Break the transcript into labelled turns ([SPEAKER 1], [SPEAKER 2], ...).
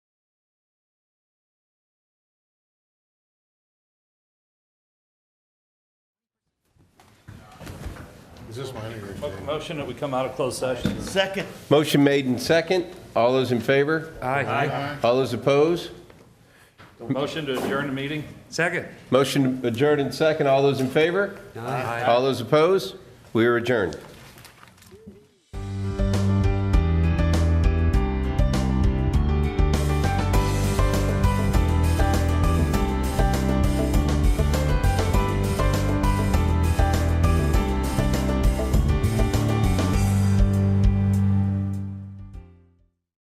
[SPEAKER 1] Is this mine or yours? Dave?
[SPEAKER 2] Motion that we come out of closed session.
[SPEAKER 3] Second.
[SPEAKER 4] Motion made in second. All those in favor?
[SPEAKER 2] Aye.
[SPEAKER 4] All those opposed?
[SPEAKER 2] Motion to adjourn the meeting.
[SPEAKER 5] Second.
[SPEAKER 4] Motion adjourned in second. All those in favor? All those opposed? We are adjourned.